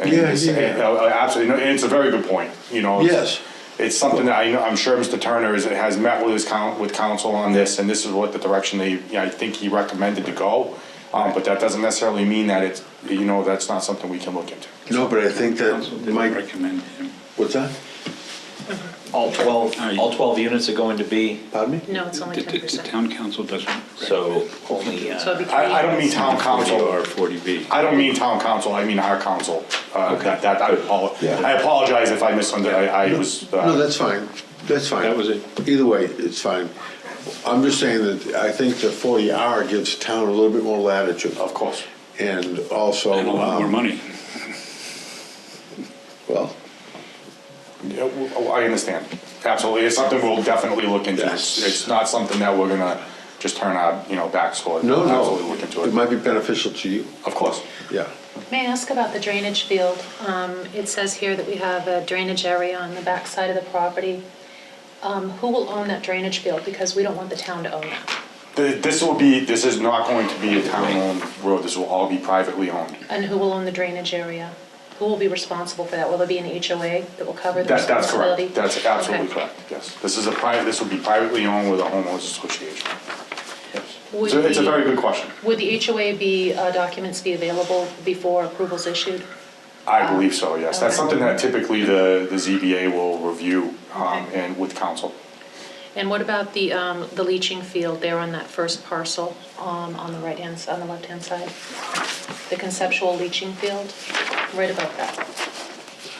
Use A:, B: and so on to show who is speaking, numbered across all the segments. A: And
B: Yeah,
A: it's-
B: yeah, yeah.
A: uh, Absolutely, and it's a very good point, you know. it's-
B: Yes.
A: It's something that I know, I'm sure Mr. Turner is, has met with his coun, with council on this, and this is what the direction they, you know, I think he recommended to go. Um, but that doesn't necessarily mean that it's, you know, that's not something we can look into.
B: No, but I think
C: Council
B: that
C: didn't
B: Mike,
C: Recommend him.
B: what's that?
D: All 12,
C: Aye.
D: all 12 units are going to be,
B: Pardon me?
E: No, it's only
C: The, the-
E: ten
C: the
E: percent.
C: town council doesn't.
D: so only,
E: So it'd
D: uh,
E: be three.
A: I, I don't mean
E: units.
A: town council,
C: Or forty B.
A: I don't mean town council, I mean our council. Uh, that, that, I apol-
B: Yeah.
A: I apologize if I misunderstood, I, I was. uh,
B: No, that's fine, that's fine.
C: That was it.
B: Either way, it's fine. I'm just saying that I think the forty R gives town a little bit more latitude.
A: uh, Of course.
B: And also.
C: And a lot more
B: um,
C: money.
B: Well,
A: Yeah, w- oh, I understand, absolutely, it's something we'll definitely look into. It's,
B: Yes.
A: it's not something that we're gonna just turn our, you know, backs toward.
B: no,
A: Absolutely look
B: no,
A: into
B: it
A: it,
B: might be beneficial to you,
A: of course.
B: yeah.
E: May I ask about the drainage field? Um, It says here that we have a drainage area on the backside of the property. Um, Who will own that drainage field? Because we don't want the town to own that.
A: Th- This will be, this is not going to be a town-owned road, this will all be privately owned.
E: And who will own the drainage area? Who will be responsible for that? Will there be an HOA that will cover the
A: That, that's
E: responsibility?
A: correct, that's absolutely
E: Okay.
A: correct, yes. This is a private, this will be privately owned with a homeowners association.
E: Would
A: So it's a
E: the-
A: very good question,
E: Would the HOA be, uh, documents be available before approval's issued?
A: I believe so, yes, that's
E: Uh, Okay.
A: something that typically the, the ZBA will review, um,
E: Okay.
A: and with council.
E: And what about the, um, the leaching field there on that first parcel, um, on the right-hand, s- on the left-hand side? The conceptual leaching field, right above that.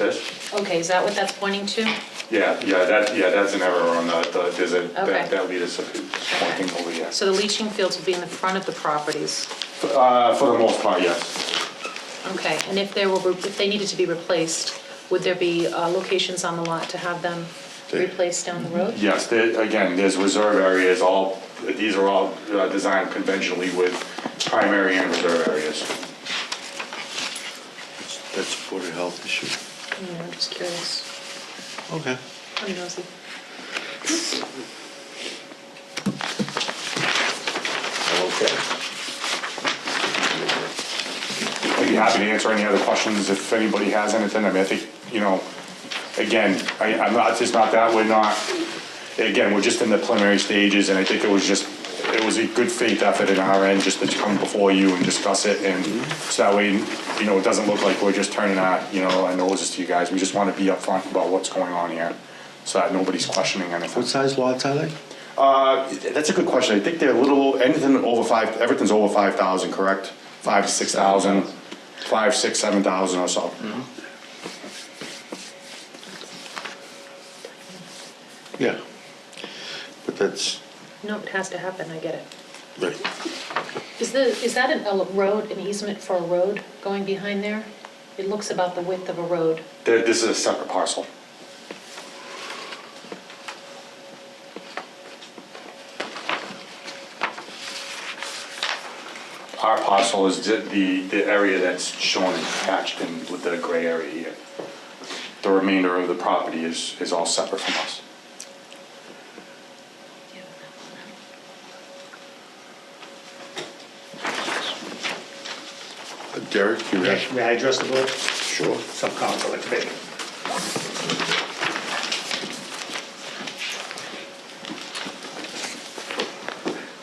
E: Okay, is that what that's pointing to?
A: Yeah, yeah, that, yeah, that's an error on the, the- there's a,
E: Okay.
A: that, that lead is pointing over, yes.
E: So the leaching fields will be in the front of the properties.
A: Uh, for the most part, yes.
E: Okay, and if there were, if they needed to be replaced, would there be, uh, locations on the lot to have them replaced down the road?
A: Yes, there, again, there's reserve areas, all, these are all uh, designed conventionally with primary and reserve areas.
B: That's a Board of Health issue.
E: You know, I'm just curious. Oh,
B: Okay.
E: I'm nosy.
B: Okay.
A: I'd be happy to answer any other questions if anybody has anything. I mean, I think, you know, again, I, I'm not, it's not that, we're not, again, we're just in the preliminary stages, and I think it was just, it was a good faith effort in our end, just to come before you and discuss it, and so that way, you know, it doesn't look like we're just turning our, you know, our noses to you guys. We just wanna be upfront about what's going on here, so that nobody's questioning anything.
B: What size lots are they?
A: Uh, that's a good question. I think they're a little, anything over five, everything's over five thousand, correct? Five, six thousand, five, six, seven thousand or so.
B: Yeah. But that's,
E: No, it has to happen, I get it.
B: right.
E: Is the, is that an, a road, an easement for a road going behind there? It looks about the width of a road.
A: Th- This is a separate parcel. Our parcel is the- the, the area that's shown and hatched in with the gray area here. The remainder of the property is, is all separate from us.
B: Derek, you have?
F: Yes, may I address the board?
B: Sure.
F: Some conflict there.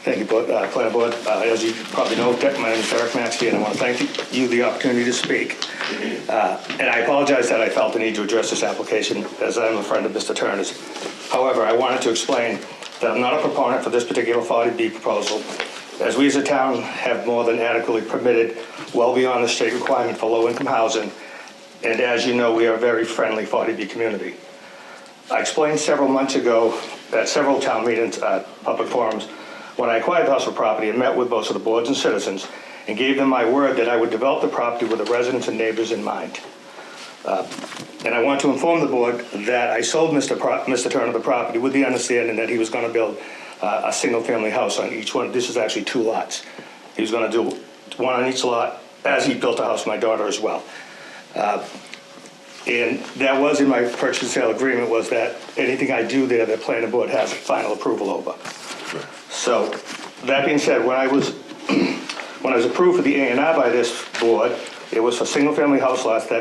F: Thank you, Board- uh, Planning Board. Uh, As you probably know, my name is Derek Maxey, and I want to thank you for the opportunity to speak. Uh, And I apologize that I felt the need to address this application, as I'm a friend of Mr. Turner's. However, I wanted to explain that I'm not a proponent for this particular 40B proposal, as we as a town have more than adequately permitted well beyond the state requirement for low-income housing, and as you know, we are a very friendly 40B community. I explained several months ago at several town meetings, uh, public forums, when I acquired the Hustle property and met with most of the boards and citizens and gave them my word that I would develop the property with the residents and neighbors in mind. Uh, And I want to inform the board that I sold Mr. Pro- Mr. Turner the property with the understanding that he was going to build uh, a single-family house on each one. This is actually two lots. He was going to do one on each lot as he built a house for my daughter as well. Uh, And that was in my purchase and sale agreement, was that anything I do there, the planning board has final approval over. So, that being said, when I was, when I was approved for the A and R by this board, it was for single-family house lots that